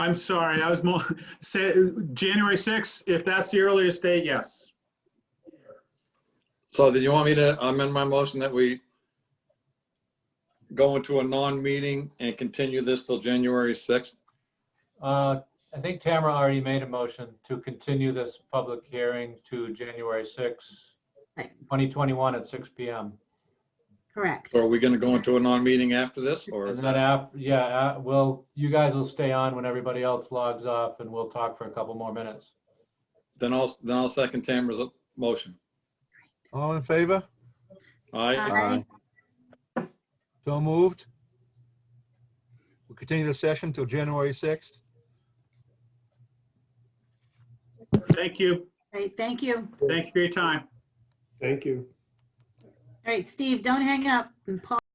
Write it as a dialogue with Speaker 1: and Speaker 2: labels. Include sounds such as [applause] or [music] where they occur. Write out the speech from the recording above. Speaker 1: I'm sorry, I was more, [laughs] say, January 6th, if that's the earliest date, yes.
Speaker 2: So then you want me to amend my motion that we go into a non-meeting and continue this till January 6th?
Speaker 3: Uh, I think Tamara already made a motion to continue this public hearing to January 6,
Speaker 4: Right.
Speaker 3: 2021 at 6 PM.
Speaker 4: Correct.
Speaker 2: So are we going to go into a non-meeting after this or
Speaker 3: And
Speaker 2: is
Speaker 3: then
Speaker 2: that?
Speaker 3: after, yeah, uh, well, you guys will stay on when everybody else logs off and we'll talk for a couple more minutes.
Speaker 2: Then I'll, then I'll second Tamara's motion.
Speaker 5: All in favor?
Speaker 2: All right,
Speaker 4: Aye.
Speaker 5: So moved. We'll continue the session till January 6th.
Speaker 1: Thank you.
Speaker 4: Great, thank you.
Speaker 1: Thank you for your time.
Speaker 6: Thank you.
Speaker 4: All right, Steve, don't hang up. And Paul.